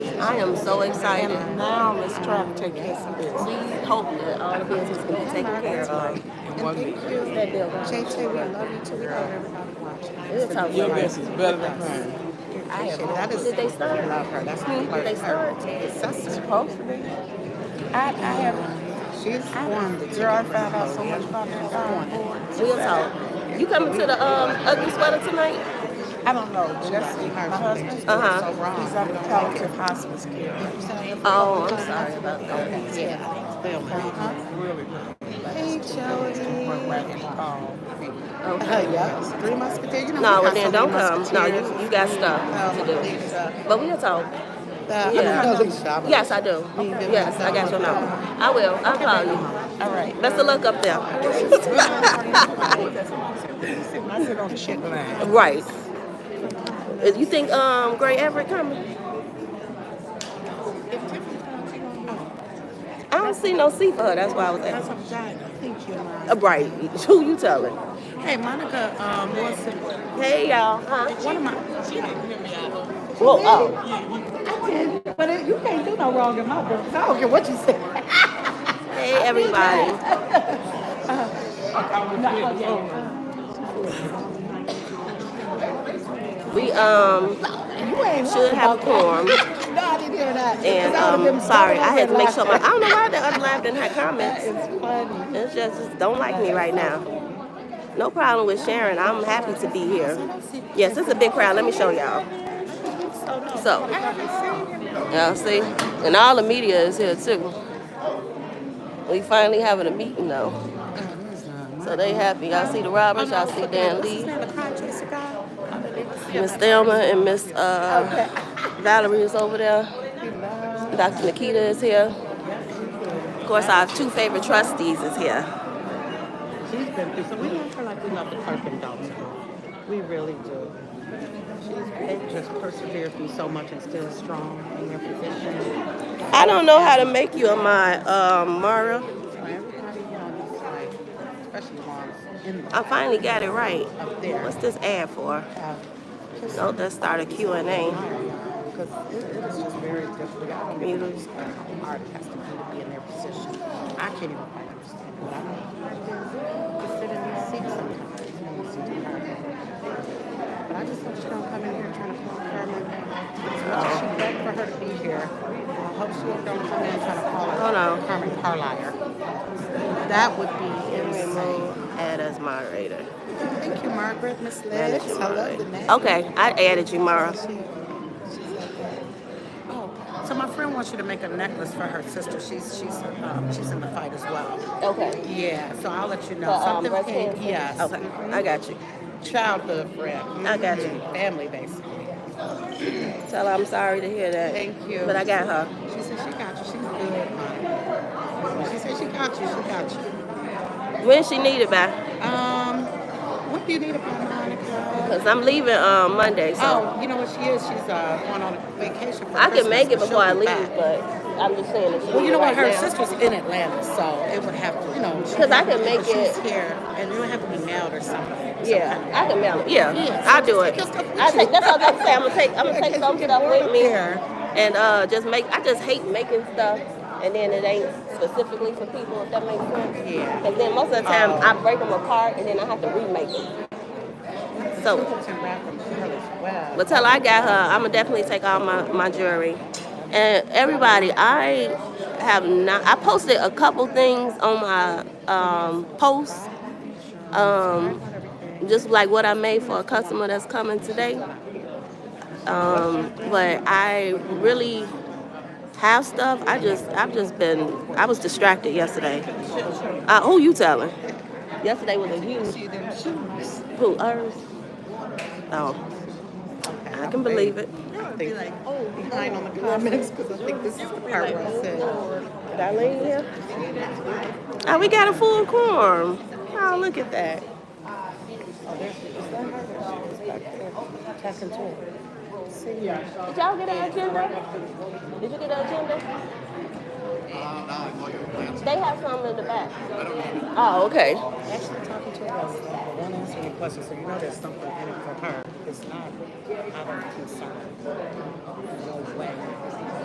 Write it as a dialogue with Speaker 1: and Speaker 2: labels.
Speaker 1: I am so excited.
Speaker 2: And now let's try to take care of some business.
Speaker 1: Please hope that all the business can be taken care of.
Speaker 2: And thank you.
Speaker 1: That building.
Speaker 2: Tay Tay, we love you too. We love everybody watching.
Speaker 1: We'll talk
Speaker 3: Your
Speaker 1: about
Speaker 3: best
Speaker 1: it.
Speaker 3: is better than mine.
Speaker 1: I have-
Speaker 2: That is-
Speaker 1: Did they start?
Speaker 2: Love her. That's my
Speaker 1: Did
Speaker 2: like
Speaker 1: they
Speaker 2: her.
Speaker 1: start?
Speaker 2: That's
Speaker 1: Supposed
Speaker 2: to be.
Speaker 1: I, I have,
Speaker 2: She's formed the.
Speaker 3: Girl, I found out so much about
Speaker 1: we'll talk. You coming to the, um, ugly sweater tonight?
Speaker 2: I don't know, Jesse, my husband's doing
Speaker 1: Uh-huh.
Speaker 2: so wrong. He's on palliative hospice care.
Speaker 1: Oh, I'm sorry about that.
Speaker 2: Uh-huh. Hey, Jody.
Speaker 1: Okay.
Speaker 2: Yeah, three musketeers. You
Speaker 1: No,
Speaker 2: know, we
Speaker 1: well
Speaker 2: got
Speaker 1: then
Speaker 2: so
Speaker 1: don't
Speaker 2: many
Speaker 1: come. No, you,
Speaker 2: musketeers.
Speaker 1: you got
Speaker 2: Um,
Speaker 1: stuff to do.
Speaker 2: it's, uh,
Speaker 1: But we'll talk.
Speaker 2: the- I mean,
Speaker 1: Yeah.
Speaker 2: I know you shop.
Speaker 1: Yes, I do. Yes, I got your number. I will. I'll call you.
Speaker 2: All right. Oh,
Speaker 1: Best of luck up there.
Speaker 2: I sit on the shit line.
Speaker 1: right. Uh, You think um Gray Everett coming? I don't see no C for her. That's why I was
Speaker 2: That's
Speaker 1: asking.
Speaker 2: a vagina. Thank you,
Speaker 1: Uh,
Speaker 2: Monica.
Speaker 1: Right. Who you telling?
Speaker 2: Hey, Monica, um, Wilson,
Speaker 1: Hey y'all. Huh?
Speaker 2: one of my, she didn't hear me out.
Speaker 1: Whoa. Oh.
Speaker 2: But it- you can't do no wrong in my book. I don't care what you say.
Speaker 1: Hey everybody. We um
Speaker 2: You ain't
Speaker 1: should have a quorum.
Speaker 2: lying. No, I didn't hear that. 'Cause
Speaker 1: And
Speaker 2: I would've
Speaker 1: um,
Speaker 2: been
Speaker 1: sorry, I had to make sure my I
Speaker 2: laughing.
Speaker 1: don't know why the other live didn't have comments.
Speaker 2: It's funny.
Speaker 1: It's just just don't like me right now. No problem with Sharon. I'm happy to be here. Yes, it's a big crowd. Let me show y'all. So, y'all see, and all the media is here too. We finally having a meeting though, so they happy. Y'all see the Roberts. Y'all see Dan Lee. Miss Thelma and Miss uh, Valerie is over there. Dr. Nikita is here. Of course, our two favorite trustees is here.
Speaker 2: She's been through, so we love her like we love the clerk in Dalton. We really do. She's just persevered through so much and still strong in her position.
Speaker 1: I don't know how to make you a my um, Mara.
Speaker 2: Everybody, you know, it's like, especially the ones in the,
Speaker 1: I finally got it right.
Speaker 2: up there.
Speaker 1: What's this ad for?
Speaker 2: have just
Speaker 1: Don't just start a Q&A.
Speaker 2: Because it, it is just very difficult. I don't even understand how an artist has to do to be in their position. I can't even quite understand what I mean. Just sit in these seats sometimes and listen to her. But I just hope she don't come in here trying to call Carmen. As much as she begged for her to be here, I hope she don't come in trying to call her
Speaker 1: Hold on.
Speaker 2: Carmen Carlier. That would be insane.
Speaker 1: Remove ad as moderator.
Speaker 2: Thank you, Margaret, Miss Liz.
Speaker 1: Manager
Speaker 2: I love the name.
Speaker 1: moderator. Okay, I added you, Mara.
Speaker 2: Oh, So my friend wants you to make a necklace for her sister. She's she's um, she's in the fight as well.
Speaker 1: Okay.
Speaker 2: Yeah, so I'll let you know.
Speaker 1: For, um,
Speaker 2: Something
Speaker 1: breast
Speaker 2: came-
Speaker 1: cancer?
Speaker 2: yes.
Speaker 1: Okay, I got you.
Speaker 2: Childhood friend.
Speaker 1: I got you.
Speaker 2: Mhm. Family basically.
Speaker 1: Tell her I'm sorry to hear that.
Speaker 2: Thank you.
Speaker 1: But I got her.
Speaker 2: She said she got you. She's good. Monica. She said she got you. She got you.
Speaker 1: When she needed by?
Speaker 2: Um, what do you need about Monica?
Speaker 1: Because I'm leaving um, Monday, so
Speaker 2: Oh, you know what she is? She's uh, going on vacation for
Speaker 1: I can
Speaker 2: Christmas,
Speaker 1: make it
Speaker 2: but
Speaker 1: before I
Speaker 2: Oh, she'll be
Speaker 1: leave,
Speaker 2: back.
Speaker 1: but I'm just saying that she
Speaker 2: Well, you know
Speaker 1: right
Speaker 2: what? Her
Speaker 1: now.
Speaker 2: sister's in Atlanta, so it would have to, you know. she-
Speaker 1: 'Cause I can make
Speaker 2: she's
Speaker 1: it-
Speaker 2: here, and it would have to be mailed or something.
Speaker 1: Yeah, I can mail it. Yeah,
Speaker 2: Yeah, so
Speaker 1: I'll do it.
Speaker 2: just take your stuff with
Speaker 1: I take
Speaker 2: you.
Speaker 1: that's what I'm saying. I'm gonna take I'm gonna take
Speaker 2: Because
Speaker 1: some
Speaker 2: you get
Speaker 1: stuff
Speaker 2: bored
Speaker 1: with
Speaker 2: up
Speaker 1: me
Speaker 2: there.
Speaker 1: and uh just make. I just hate making stuff and then it ain't specifically for people. If that makes sense.
Speaker 2: Yeah.
Speaker 1: Because then most of the time
Speaker 2: Oh.
Speaker 1: I break them apart and then I have to remake them. So,
Speaker 2: She can wrap them for her as well.
Speaker 1: but till I got her, I'm gonna definitely take all my my jewelry. And everybody, I have not. I posted a couple things on my um posts. Um, just like what I made for a customer that's coming today. Um, but I really have stuff. I just I've just been I was distracted yesterday. Uh, who you telling? Yesterday was a huge
Speaker 2: See them shoes.
Speaker 1: who hers. Oh, I can believe it.
Speaker 2: I think oh, behind on the comments because I think this is the part where I said,
Speaker 1: Darlene here. Oh, we got a full quorum. Oh, look at that.
Speaker 2: talking to her.
Speaker 1: Did y'all get an agenda? Did you get an agenda? They have some in the back. Oh, okay.
Speaker 2: Actually, talking to her uh, about stuff, but won't answer any questions, so you know there's something in it for her. It's not out of concern. No way.